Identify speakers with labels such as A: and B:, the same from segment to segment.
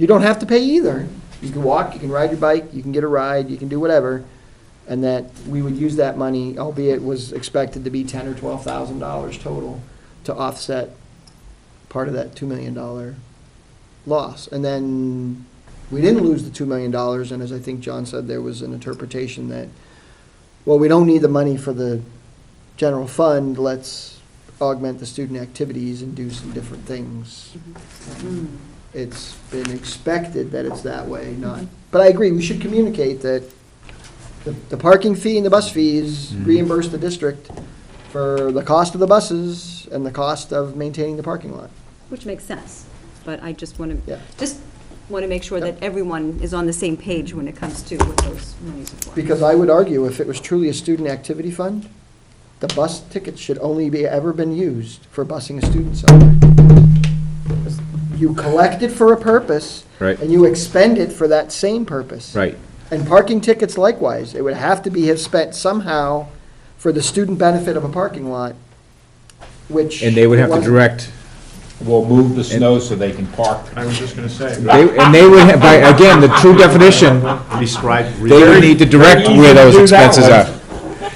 A: You don't have to pay either. You can walk, you can ride your bike, you can get a ride, you can do whatever. And that we would use that money, albeit was expected to be ten or twelve thousand dollars total, to offset part of that two million dollar loss. And then we didn't lose the two million dollars, and as I think John said, there was an interpretation that, well, we don't need the money for the general fund, let's augment the student activities and do some different things. It's been expected that it's that way, not, but I agree, we should communicate that the, the parking fee and the bus fees
B: Mhm.
A: reimburse the district for the cost of the buses and the cost of maintaining the parking lot.
C: Which makes sense, but I just want
A: Yeah.
C: to, just want to make sure that
A: Yep.
C: everyone is on the same page when it comes to what those monies are for.
A: Because I would argue if it was truly a student activity fund, the bus tickets should only be, ever been used for busing a student somewhere. You collect it for a purpose.
B: Right.
A: And you expend it for that same purpose.
B: Right,
A: And parking tickets likewise, it would have to be have spent somehow for the student benefit of a parking lot, which.
B: and they would have to
A: wasn't.
B: direct,
D: We'll move the snow so they can park.
E: I was just gonna say.
B: they- and they would, have- by, again, the true definition,
E: Describe.
B: they would need to direct where those
D: Very easy to do that
B: expenses are.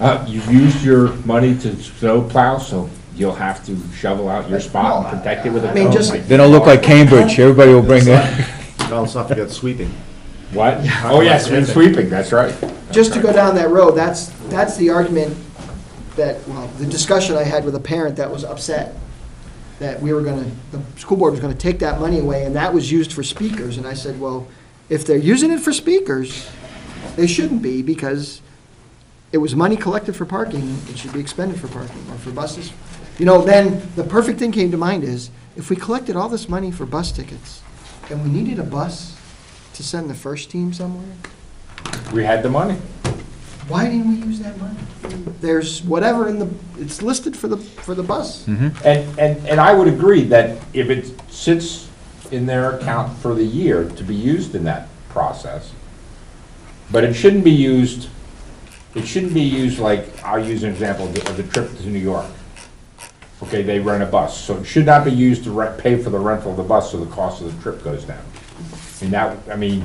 D: Uh, you've used your money to snow plow, so you'll have to shovel out your spot and protect it with a.
A: I mean, just-
B: They don't look like Cambridge, everybody will bring their,
E: Don't forget sweeping.
D: What? Oh, yes, and sweeping, that's right.
A: just to go down that road, that's, that's the argument that, well, the discussion I had with a parent that was upset that we were gonna, the school board was gonna take that money away, and that was used for speakers, and I said, well, if they're using it for speakers, they shouldn't be, because it was money collected for parking, it should be expended for parking, or for buses. You know, then, the perfect thing came to mind is, if we collected all this money for bus tickets, and we needed a bus to send the first team somewhere,
D: We had the money.
A: why didn't we use that money? There's whatever in the, it's listed for the, for the bus.
D: Mm-hmm. And, and, and I would agree that if it sits in their account for the year to be used in that process, but it shouldn't be used, it shouldn't be used like, I'll use an example of the, of the trip to New York. Okay, they rent a bus, so it should not be used to re pay for the rental of the bus, so the cost of the trip goes down. And that, I mean,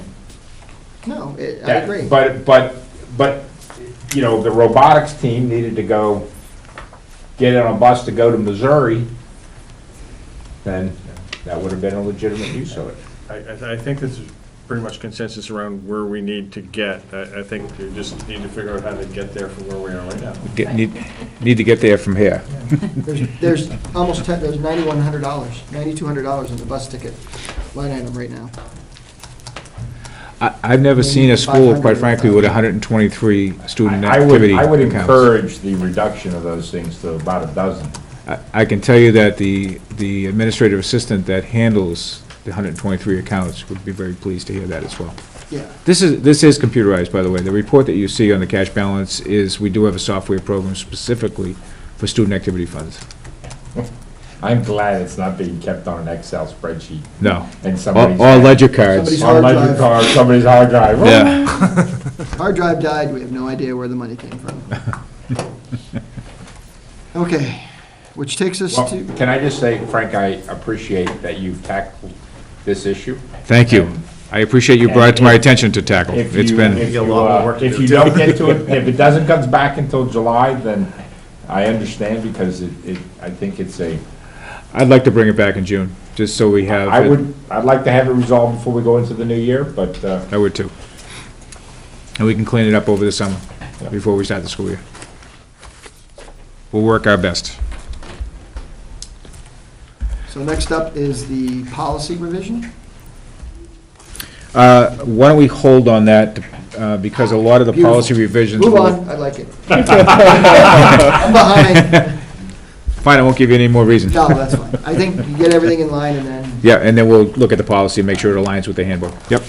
A: No, it- I
D: that-
A: agree.
D: But, but, but, you know, the robotics team needed to go get on a bus to go to Missouri, then that would have been a legitimate use of it.
E: I, I I think this is pretty much consensus around where we need to get. I, I think we just need to figure out how to get there from where we are right now.
B: get- need, need to get there from here.
A: There's, there's almost ten, there's ninety-one hundred dollars, ninety-two hundred dollars in the bus ticket line item right now.
B: I, I've never seen a school, quite frankly, with hundred and twenty-three student
D: I I would,
B: activity
D: I would
B: accounts.
D: encourage the reduction of those things to about a dozen.
B: I- I can tell you that the, the administrative assistant that handles the hundred and twenty-three accounts would be very pleased to hear that as well.
A: Yeah.
B: This is, this is computerized, by the way. The report that you see on the cash balance is, we do have a software program specifically for student activity funds.
D: I'm glad it's not being kept on an Excel spreadsheet
B: No.
D: and somebody's.
B: All all ledger cards.
A: Somebody's- hard
D: On ledger
A: drive.
D: card, somebody's hard drive.
B: Yeah.
A: Hard drive died, we have no idea where the money came from. Okay, which takes us
D: Well,
A: to,
D: Can I just say, Frank, I appreciate that you've tackled this issue.
B: Thank you. I appreciate you brought it to my attention to tackle.
D: If
B: It's
D: you-
B: been,
D: if
E: Maybe
D: you,
E: a lot more
D: uh,
E: work to
D: If
E: do.
D: you don't get to it, if it doesn't comes back until July, then I understand because it, it, I think it's a,
B: I'd like to bring it back in June, just so we have.
D: I
B: it-
D: would, I'd like to have it resolved before we go into the new year, but, uh,
B: I would too. And we can clean it up over the summer, before we start the school year. We'll work our best.
A: so next up is the policy revision.
B: Uh, Why don't we hold on that, uh, because a lot of the policy revisions.
A: Move
B: will-
A: on, I like it. I'm behind.
B: Fine, I won't give you any more reason.
A: No, that's fine. I think you get everything in line and then.
B: Yeah, and then we'll look at the policy and make sure it aligns with the handbook. Yep.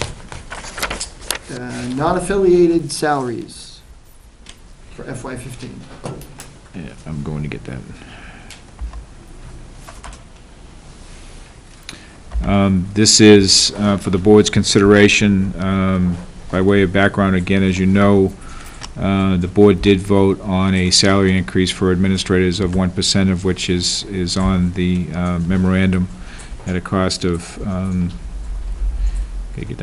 A: Uh, non-affiliated salaries for FY fifteen.
B: Yeah, I'm going to get that. Um, This is uh, for the board's consideration. Um, By way of background, again, as you know, uh, the board did vote on a salary increase for administrators of 1%, of which is, is on the uh, memorandum at a cost of um, Gotta get that